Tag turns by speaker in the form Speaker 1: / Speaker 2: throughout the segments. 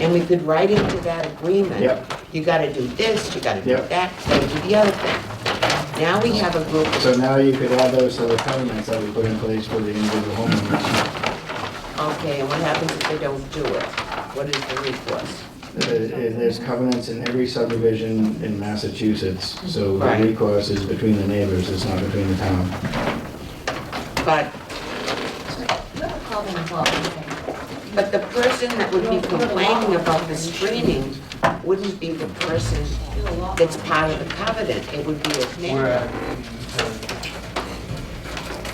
Speaker 1: And we could write into that agreement.
Speaker 2: Yep.
Speaker 1: You gotta do this, you gotta do
Speaker 2: Yep.
Speaker 1: that, you gotta do the other thing. Now we have a group,
Speaker 2: So now you could add those to the covenants that we put in place for the individual homeowners. Uh,
Speaker 1: okay, and what happens if they don't do it? What is the recourse?
Speaker 2: There- There's covenants in every subdivision in Massachusetts, so the
Speaker 1: Right.
Speaker 2: recourse is between the neighbors, it's not between the town.
Speaker 1: But,
Speaker 3: Not a problem at all, okay.
Speaker 1: but the person that would be complaining about the screening wouldn't be the person
Speaker 3: You're a lot-
Speaker 1: that's part of the covenant, it would be a neighbor.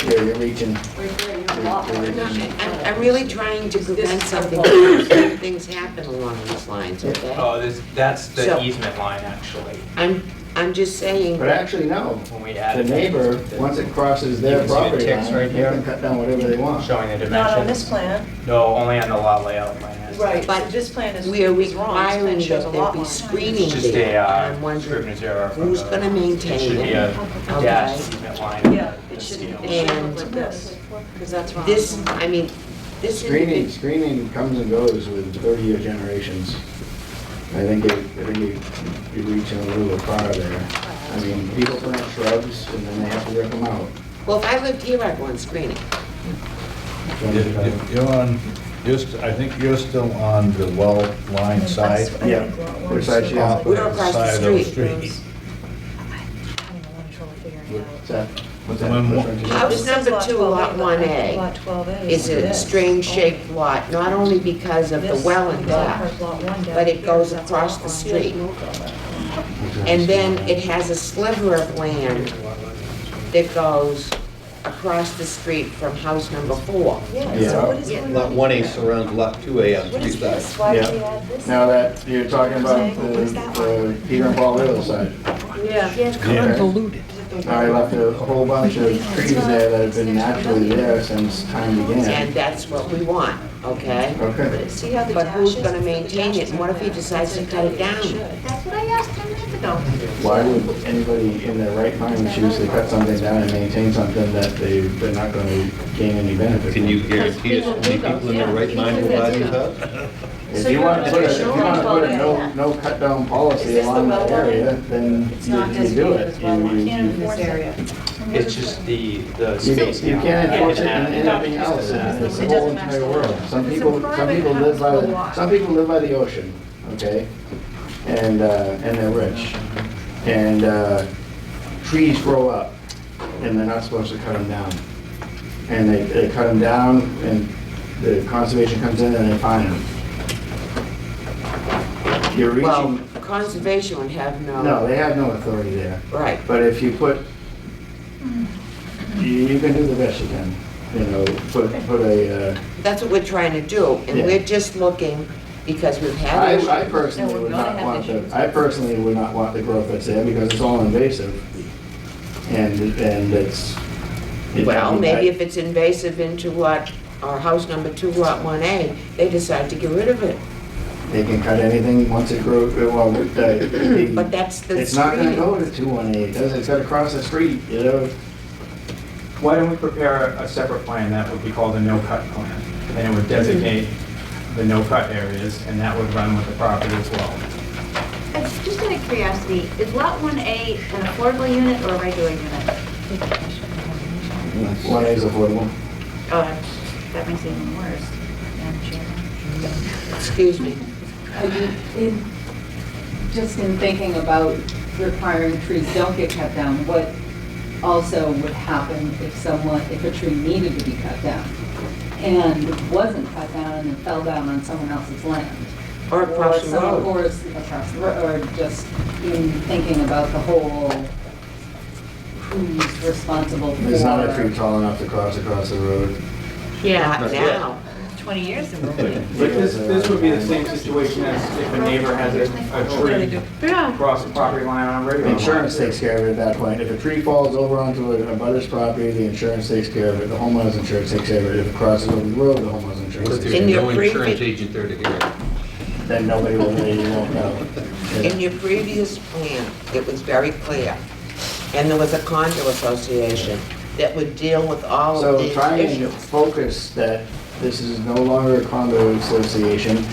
Speaker 2: You're, you're reaching.
Speaker 3: We're here, you're a lot more-
Speaker 1: No, I- I'm, I'm really trying to prevent something, from- things happen along these lines, okay?
Speaker 4: Oh, this, that's
Speaker 1: So-
Speaker 4: the easement line, actually,
Speaker 1: I'm, I'm just saying,
Speaker 2: But actually, no,
Speaker 4: when we
Speaker 2: the
Speaker 4: added. that,
Speaker 2: neighbor,
Speaker 4: the-
Speaker 2: once it crosses
Speaker 4: You
Speaker 2: their
Speaker 4: can see the
Speaker 2: property
Speaker 4: ticks
Speaker 2: line,
Speaker 4: right
Speaker 2: they
Speaker 4: here.
Speaker 2: can cut down whatever they want.
Speaker 4: Showing the dimensions.
Speaker 5: Not on this plan.
Speaker 4: No, only on the lot layout plan.
Speaker 5: Right,
Speaker 1: But
Speaker 5: this plan is
Speaker 1: we are
Speaker 5: is wrong. This
Speaker 1: requiring
Speaker 5: plan shows a
Speaker 1: that there
Speaker 5: lot
Speaker 1: be
Speaker 5: more.
Speaker 1: screening
Speaker 4: It's just a,
Speaker 1: there.
Speaker 4: uh,
Speaker 1: And I'm wondering
Speaker 4: scrivener's error. from
Speaker 1: who's
Speaker 4: the-
Speaker 1: gonna
Speaker 4: It should
Speaker 1: maintain
Speaker 4: be
Speaker 1: it.
Speaker 4: a
Speaker 1: Okay.
Speaker 4: dash easement line on
Speaker 5: Yeah,
Speaker 4: the
Speaker 3: It shouldn't, it
Speaker 4: scale.
Speaker 3: shouldn't look
Speaker 1: And
Speaker 3: like this, because that's wrong.
Speaker 1: This, I mean, this
Speaker 2: Screening,
Speaker 1: individual,
Speaker 2: screening comes and goes with 30-year generations. I think you, I think you- you reach a little far there. I mean, people plant shrubs and then they have to rip them out.
Speaker 1: well, if I lived here, I'd want screening.
Speaker 6: You- you- You're on, you're, st- I think you're still on the well line side.
Speaker 5: I
Speaker 2: Yeah.
Speaker 5: think lot one
Speaker 2: Which
Speaker 5: is
Speaker 2: side you on?
Speaker 5: so-
Speaker 1: We're across the
Speaker 6: Side of the
Speaker 1: street.
Speaker 6: street.
Speaker 5: I'm having a lot of trouble figuring it
Speaker 2: What's
Speaker 5: out.
Speaker 2: that? What's that?
Speaker 6: When-
Speaker 2: What frontage is
Speaker 1: House
Speaker 2: that?
Speaker 5: This is
Speaker 1: number two, lot
Speaker 5: 12A,
Speaker 1: one
Speaker 5: but I
Speaker 1: A.
Speaker 5: think Lot 12A
Speaker 1: It's a
Speaker 5: this.
Speaker 1: strange shaped lot, not only because of the
Speaker 5: This
Speaker 1: well and
Speaker 5: is
Speaker 1: that,
Speaker 5: lot one down
Speaker 1: but it
Speaker 5: here,
Speaker 1: goes
Speaker 5: that's
Speaker 1: across
Speaker 5: lot
Speaker 1: the
Speaker 5: one.
Speaker 1: street. And then it has a sliver of land that goes across the street from house number four.
Speaker 5: Yeah,
Speaker 2: Yeah.
Speaker 5: so what is
Speaker 1: Yeah.
Speaker 5: going on?
Speaker 7: Lot 1A
Speaker 5: here?
Speaker 7: surrounds Lot 2A on
Speaker 5: What
Speaker 7: three
Speaker 5: is
Speaker 7: sides.
Speaker 5: this? Why did
Speaker 2: Yeah.
Speaker 5: we add this?
Speaker 2: Now that, you're talking about the,
Speaker 5: What's that one?
Speaker 2: the Peter and Paul Little side.
Speaker 5: Yeah.
Speaker 2: Convoluted. I left a whole bunch of trees there that have been naturally there since time
Speaker 1: And
Speaker 2: began.
Speaker 1: that's what we want, okay?
Speaker 2: Okay.
Speaker 5: See how the
Speaker 1: But who's
Speaker 5: dashes-
Speaker 1: gonna
Speaker 5: the
Speaker 1: maintain it?
Speaker 5: dashes
Speaker 1: What
Speaker 5: are
Speaker 1: if he
Speaker 5: there?
Speaker 1: decides to
Speaker 5: That's
Speaker 1: cut it
Speaker 5: okay,
Speaker 1: down?
Speaker 5: should.
Speaker 3: That's what I asked ten minutes ago.
Speaker 2: Why would anybody in their right mind choose to cut something down and maintain something that they, they're not gonna gain any benefit?
Speaker 7: Can you
Speaker 2: from?
Speaker 7: guarantee as many people in their right mind will buy these houses?
Speaker 2: If you want to put a, if you want to put a no, no cut down
Speaker 5: Is
Speaker 2: policy
Speaker 5: this the
Speaker 2: along that
Speaker 5: well line?
Speaker 2: area, then
Speaker 3: It's not
Speaker 2: you you do
Speaker 3: designated
Speaker 2: it.
Speaker 3: as well
Speaker 2: You- you-
Speaker 3: line in
Speaker 2: you-
Speaker 3: this area.
Speaker 4: It's just the, the
Speaker 2: You
Speaker 4: space.
Speaker 2: you
Speaker 4: now.
Speaker 2: can't enforce it in
Speaker 4: I can add
Speaker 2: anything else,
Speaker 4: that.
Speaker 2: it's the whole entire world. Some people, some people live by the, some people live by the ocean, okay? And, uh, and they're rich. And, uh, trees grow up, and they're not supposed to cut them down. And they, they cut them down, and the conservation comes in and they find them. You're
Speaker 1: Well, um,
Speaker 2: reaching,
Speaker 1: conservation would have
Speaker 2: no,
Speaker 1: no,
Speaker 2: they have no authority there.
Speaker 1: right.
Speaker 2: But if you put, you you can do the best you can, you know, put, put a, uh,
Speaker 1: That's what we're trying to do, and
Speaker 2: Yeah.
Speaker 1: we're just looking, because we've had issues.
Speaker 2: I, I personally would not want the, I personally would not want the growth that's there because it's all invasive. And, and it's. it-
Speaker 1: Well,
Speaker 2: I-
Speaker 1: maybe if it's invasive into what, our house number two, lot one A, they decide to get rid of it.
Speaker 2: They can cut anything once it grows, uh, well, the- the.
Speaker 1: But that's the
Speaker 2: It's not gonna
Speaker 1: screening.
Speaker 2: go to two one eight, does it? It's gotta cross the street, you know?
Speaker 4: Why don't we prepare a separate plan that would be called a no-cut plan? And it would designate the no-cut areas, and that would run with the property as well.
Speaker 3: Uh, Just out of curiosity, is lot one A an affordable unit or a regular unit?
Speaker 2: One is affordable.
Speaker 3: Oh, that makes it even worse. Madam Chair.
Speaker 1: Excuse me.
Speaker 8: Are you in, just in thinking about requiring trees don't get cut down, what also would happen if someone, if a tree needed to be cut down and wasn't cut down and fell down on someone else's land?
Speaker 1: Or across the
Speaker 8: some-
Speaker 1: road.
Speaker 8: Or s- across the road, or just in thinking about the whole, who's responsible for.
Speaker 2: There's not a tree tall enough to cross across the road.
Speaker 1: Yeah, now.
Speaker 3: 20 years ago.
Speaker 4: But this, this would be the same situation as if a neighbor has a, a tree across the property line on a
Speaker 2: The
Speaker 4: regular.
Speaker 2: Insurance takes care of it at that point. If a tree falls over onto a a butter's property, the insurance takes care of it, the homeowner's insurance takes care of it. If it crosses over the road, the homeowner's insurance.
Speaker 7: If
Speaker 2: takes
Speaker 7: there's
Speaker 2: care
Speaker 1: In
Speaker 2: of
Speaker 1: your
Speaker 7: no
Speaker 1: previ-
Speaker 7: insurance agent there to hear it.
Speaker 2: it. Then nobody will, you won't know.
Speaker 1: In your previous plan, it was very clear, and there was a condo association that would deal with all of
Speaker 2: So
Speaker 1: these
Speaker 2: try and
Speaker 1: issues.
Speaker 2: focus that this is no longer a condo association,